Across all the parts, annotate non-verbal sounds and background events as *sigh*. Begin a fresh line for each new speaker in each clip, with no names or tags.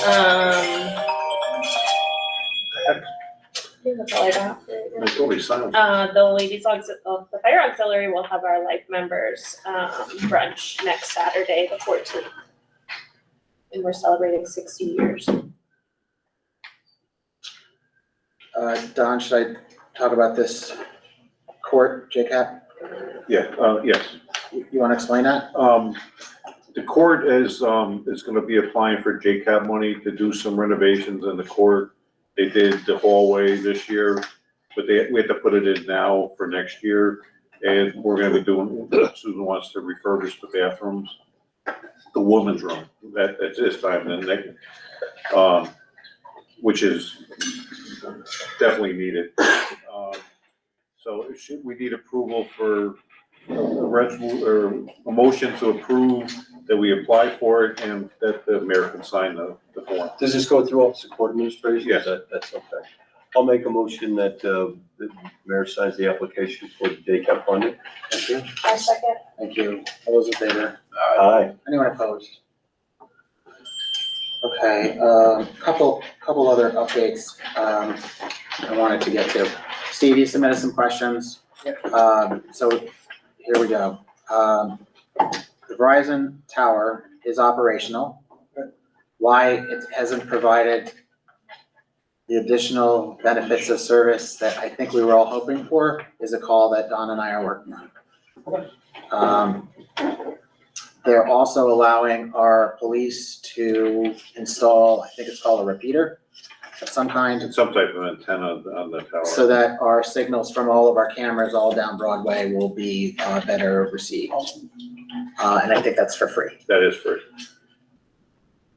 Um. I think that's all I got.
That's what we signed.
Uh, the ladies, aux- uh, the fire auxiliary will have our life members, um, brunch next Saturday, the fourteenth. And we're celebrating sixty years.
Uh, Don, should I talk about this court, JCAP?
Yeah, uh, yes.
You you wanna explain that?
Um, the court is, um, is gonna be applying for JCAP money to do some renovations in the court. They did the hallway this year, but they, we had to put it in now for next year. And we're gonna be doing, Susan wants to refurbish the bathrooms, the woman's room, that, that's this time, then they, um, which is definitely needed. Um, So it should, we need approval for a resol, or a motion to approve that we apply for it and that the mayor can sign the, the form.
Does this go through Office of Court Administration?
Yes.
That- That's okay. I'll make a motion that uh, the mayor signs the application for the daycare funding.
Thank you.
I second.
Thank you. All those in favor?
Aye.
Anyone opposed? Okay, um, couple, couple other updates, um, I wanted to get to. Steve, you submitted some questions. Um, so here we go. Um, the Verizon tower is operational. Why it hasn't provided the additional benefits of service that I think we were all hoping for is a call that Don and I are working on. Um, they're also allowing our police to install, I think it's called a repeater of some kind,
And some type of antenna on the tower.
so that our signals from all of our cameras all down Broadway will be uh, better received. Uh, And I think that's for free.
That is for,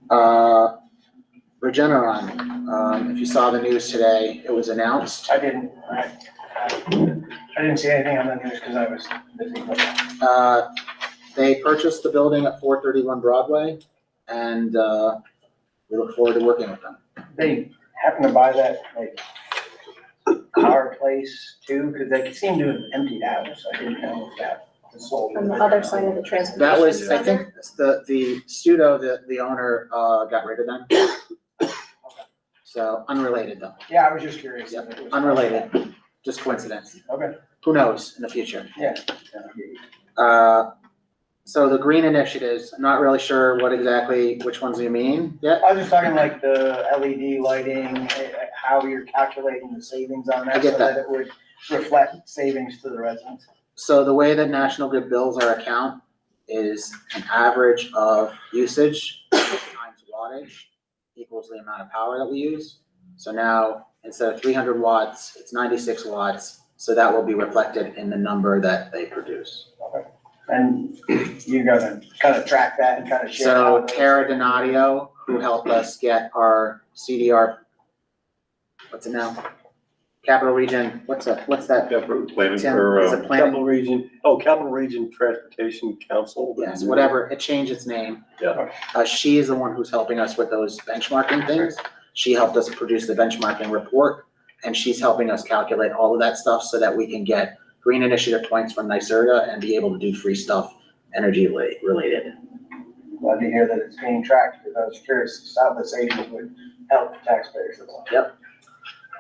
Uh, Regeneron, um, if you saw the news today, it was announced.
I didn't, I, I didn't see anything on the news because I was busy.
Uh, They purchased the building at 431 Broadway, and uh, we look forward to working with them.
They happened to buy that, like, car place too, because they seemed to have emptied out, so I didn't know if that was sold.
On the other side of the transportation.
That was,
center.
I think, the, the studio, the, the owner, uh, got rid of them. So unrelated though,
Yeah, I was just curious. if it was-
unrelated, just coincidence.
Okay.
Who knows in the future?
Yeah.
Uh, so the green initiatives, I'm not really sure what exactly, which ones you mean yet.
I was just talking like the LED lighting, eh, how you're calculating the savings on
I
that
get
so
that.
that it would reflect savings to the residents.
So the way that National Grid bills our account is an average of usage times wattage equals the amount of power that we use. So now, instead of three hundred watts, it's ninety-six watts, so that will be reflected in the number that they produce.
And you're gonna kind of track that and kind of share. how
So
those-
Tara Donadio, who helped us get our CDR, what's it now? Capital Region, what's that, what's that?
for planning
Tim,
or,
is
uh,
it planning?
Capital Region, oh, Capital Region Transportation Council.
Yes,
*laughs*
whatever, it changed its name.
Yeah.
Uh, she is the one who's helping us with those benchmarking things. She helped us produce the benchmarking report, and she's helping us calculate all of that stuff so that we can get green initiative points from NYSERDA and be able to do free stuff energy la- related.
Glad to hear that it's being tracked, because I was curious as to how the savings would help the taxpayers. as well.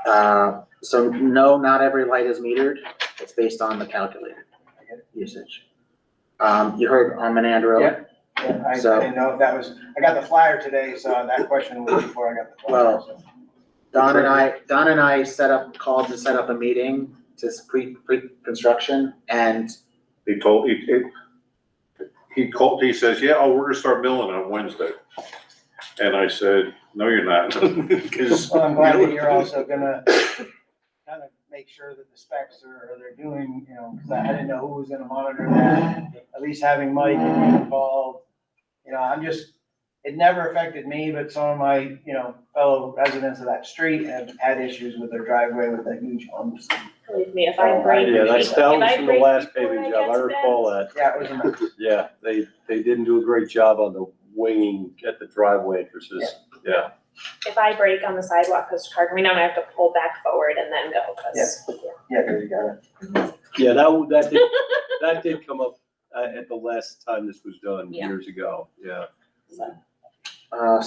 Uh, so no, not every light is metered. It's based on the calculated usage. Um, you heard on Menandro.
Yeah. Yeah, I I
So-
didn't know if that was, I got the flyer today, so that question was before I got the flyer.
Well,
so.
Don and I, Don and I set up, called to set up a meeting to s- pre, pre-construction and
he told, he, he- he called, he says, yeah, oh, we're gonna start milling on Wednesday. And I said, no, you're not, *laughs* 'Cause-
Well, I'm glad that you're also gonna kind of make sure that the specs are, are they're doing, you know, because I didn't know who was gonna monitor that. At least having Mike involved, you know, I'm just, it never affected me, but some of my, you know, fellow residents of that street have had issues with their driveway with the huge humps.
Believe me, if I break.
Yeah, that's, that
if I
was from the
break
last
before
paving
I
job,
get
I
to
recall
that,
that.
Yeah, it was a mess.
Yeah, they, they didn't do a great job on the winging at the driveway entrances. Yeah,
If I break on the sidewalk, cause car coming down, I have to pull back forward and then go, cause.
Yeah, because you got it.
yeah, that, w- that
*laughs*
did, that did come up uh, at the last time this was done,
Yeah.
years ago, yeah.
So.
Uh,